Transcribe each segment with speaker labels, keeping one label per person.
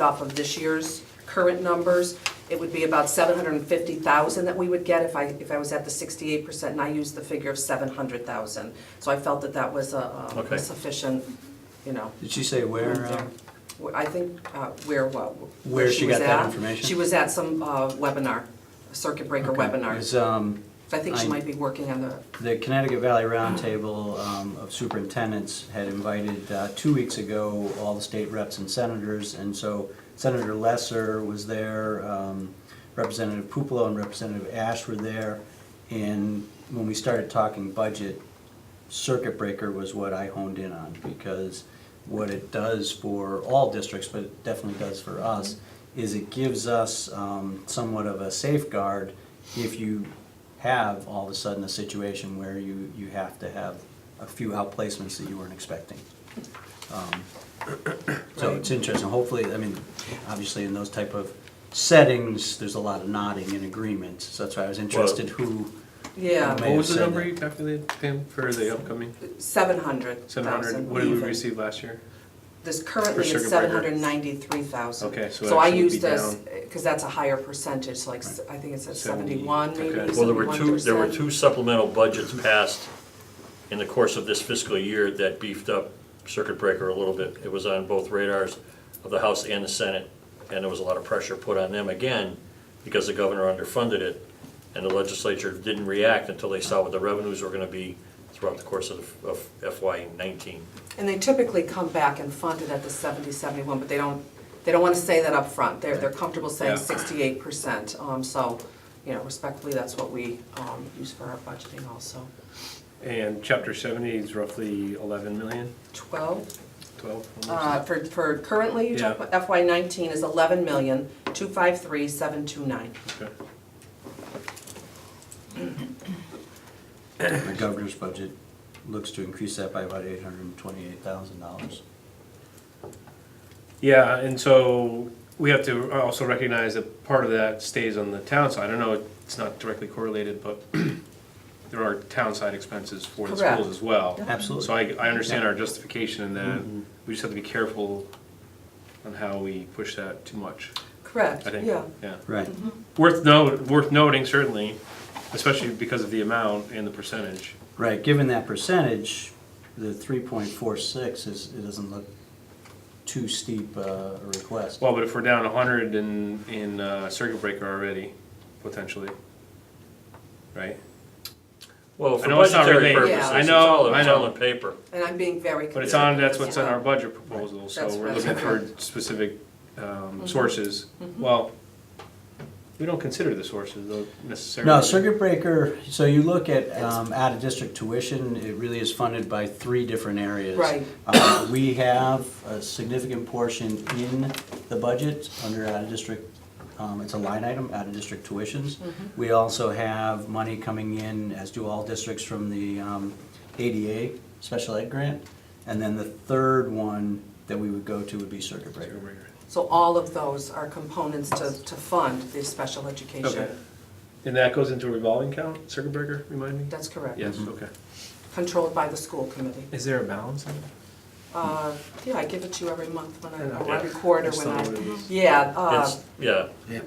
Speaker 1: off of this year's current numbers, it would be about seven hundred and fifty thousand that we would get if I, if I was at the sixty-eight percent, and I used the figure of seven hundred thousand. So I felt that that was a um,
Speaker 2: Okay.
Speaker 1: sufficient, you know,
Speaker 3: Did she say where? uh,
Speaker 1: where- I think, uh, where, what?
Speaker 3: Where she got
Speaker 1: was
Speaker 3: that
Speaker 1: at.
Speaker 3: information?
Speaker 1: She was at some uh, webinar, circuit breaker
Speaker 3: okay.
Speaker 1: webinar.
Speaker 3: It's, um,
Speaker 1: So I think she
Speaker 3: I-
Speaker 1: might be working on the,
Speaker 3: the Connecticut Valley Roundtable um, of Superintendents had invited, uh, two weeks ago, all the state reps and senators, and so Senator Lesser was there, um, Representative Pupelo and Representative Ash were there, and when we started talking budget, circuit breaker was what I honed in on, because what it does for all districts, but it definitely does for us, is it gives us um, somewhat of a safeguard if you have all of a sudden a situation where you, you have to have a few outplacements that you weren't expecting. Um, So it's interesting, hopefully, I mean, obviously in those type of settings, there's a lot of nodding and agreement, so that's why I was interested who,
Speaker 1: yeah,
Speaker 3: May
Speaker 4: What
Speaker 3: have
Speaker 4: was the
Speaker 3: said
Speaker 4: number
Speaker 3: that.
Speaker 4: you calculated, Pam, for the upcoming
Speaker 1: seven hundred
Speaker 4: seven hundred?
Speaker 1: thousand.
Speaker 4: What did we receive last year?
Speaker 1: This currently
Speaker 4: For
Speaker 1: is
Speaker 4: circuit
Speaker 1: seven
Speaker 4: breaker.
Speaker 1: hundred ninety-three thousand.
Speaker 4: Okay, so
Speaker 1: So I
Speaker 4: actually
Speaker 1: use
Speaker 4: it'd be
Speaker 1: this, because that's a higher percentage, so like, s- I think it's at
Speaker 4: Seventy,
Speaker 1: seventy-one, maybe,
Speaker 4: okay.
Speaker 2: Well, there were two, there were
Speaker 1: 71%.
Speaker 2: two supplemental budgets passed in the course of this fiscal year that beefed up circuit breaker a little bit. It was on both radars of the House and the Senate, and there was a lot of pressure put on them again because the governor underfunded it, and the legislature didn't react until they saw what the revenues were gonna be throughout the course of of FY nineteen.
Speaker 1: And they typically come back and fund it at the 70, 71, but they don't, they don't want to say that up front. They're, they're comfortable saying
Speaker 4: Yeah.
Speaker 1: sixty-eight percent. Um, so, you know, respectfully, that's what we, um, use for our budgeting also.
Speaker 4: And chapter seventy is roughly eleven million,
Speaker 1: Twelve,
Speaker 4: twelve?
Speaker 1: uh, for, for currently, you talk
Speaker 4: Yeah.
Speaker 1: about FY nineteen is eleven million, two five three, seven two nine.
Speaker 4: Okay.
Speaker 3: the governor's budget looks to increase that by about eight hundred and twenty-eight thousand dollars.
Speaker 4: Yeah, and so we have to also recognize that part of that stays on the town side. I know it's not directly correlated, but there are town side expenses for the
Speaker 1: Correct.
Speaker 4: schools as well.
Speaker 3: Absolutely.
Speaker 4: So I, I understand our justification in that. We just have to be careful on how we push that too much,
Speaker 1: Correct,
Speaker 4: I think.
Speaker 1: yeah.
Speaker 4: Yeah.
Speaker 3: Right,
Speaker 4: Worth note, worth noting certainly, especially because of the amount and the percentage.
Speaker 3: right, given that percentage, the three point four six is, it doesn't look too steep uh, a request.
Speaker 4: Well, but if we're down hundred in, in uh, circuit breaker already, potentially, right?
Speaker 2: Well, for
Speaker 4: I know it's not
Speaker 2: budgetary
Speaker 4: related.
Speaker 1: Yeah.
Speaker 2: purposes,
Speaker 4: I
Speaker 2: it's
Speaker 4: know,
Speaker 2: all, it's
Speaker 4: I
Speaker 2: all
Speaker 4: know.
Speaker 2: on paper.
Speaker 1: And I'm being very.
Speaker 4: But it's
Speaker 1: conservative,
Speaker 4: on, that's what's in
Speaker 1: yeah.
Speaker 4: our budget proposal,
Speaker 1: That's
Speaker 4: so we're
Speaker 1: right. Mm-hmm.
Speaker 4: looking for specific um, sources. Well, we don't consider the sources though necessarily.
Speaker 3: No, circuit breaker, so you look at um, out-of-district tuition, it really is funded by three different areas.
Speaker 1: Right.
Speaker 3: Uh, We have a significant portion in the budget under out-of-district, um, it's a line item, out-of-district tuitions. We also have money coming in, as do all districts, from the um, ADA special ed grant. And then the third one that we would go to would be circuit breaker.
Speaker 4: Circuit breaker.
Speaker 1: So all of those are components to, to fund the special education.
Speaker 4: Okay. And that goes into a revolving account, circuit breaker, remind me?
Speaker 1: That's correct.
Speaker 4: Yes,
Speaker 3: Mm-hmm.
Speaker 4: okay.
Speaker 1: Controlled by the school committee.
Speaker 4: Is there a balance in it?
Speaker 1: Uh, Yeah, I give it to you every month when I,
Speaker 4: Yeah.
Speaker 1: or every quarter
Speaker 4: That's
Speaker 1: when
Speaker 4: not
Speaker 1: I, Mhm.
Speaker 4: what it is.
Speaker 1: yeah, uh,
Speaker 2: It's, yeah,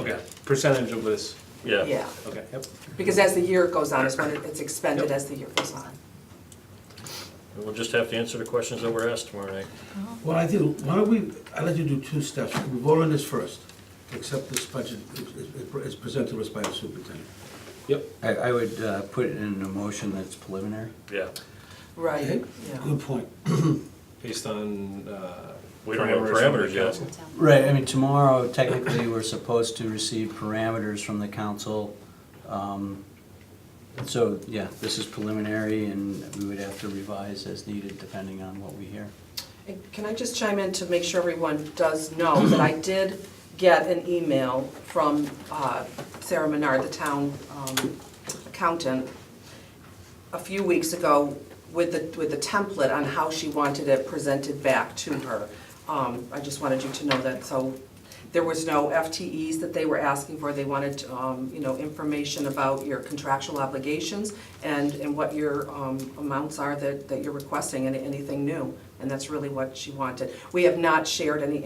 Speaker 4: Okay, percentage of this,
Speaker 2: yeah.
Speaker 1: yeah.
Speaker 4: okay, yep.
Speaker 1: Because as the year goes on, it's when it- it's expended as the year goes on.
Speaker 2: We'll just have to answer the questions that were asked tomorrow night.
Speaker 5: Well, I think, why don't we, I'd like to do two steps. We vote on this first, accept this budget as- as presented to us by the superintendent.
Speaker 4: Yep.
Speaker 3: I I would uh, put it in a motion that's preliminary.
Speaker 2: Yeah,
Speaker 1: Right,
Speaker 5: Okay?
Speaker 1: yeah.
Speaker 5: Good point.
Speaker 4: Based on, uh.
Speaker 2: We don't have
Speaker 4: parameters
Speaker 2: parameters yet.
Speaker 4: from
Speaker 3: Right, I mean, tomorrow technically, we're supposed to receive parameters from the council. Um, So, yeah, this is preliminary and we would have to revise as needed depending on what we hear.
Speaker 1: And Can I just chime in to make sure everyone does know that I did get an email from uh, Sarah Menard, the town um, accountant, a few weeks ago with the, with the template on how she wanted it presented back to her. Um, I just wanted you to know that, so there was no FTEs that they were asking for. They wanted, um, you know, information about your contractual obligations and, and what your um, amounts are that, that you're requesting and anything new. And that's really what she wanted. We have not shared any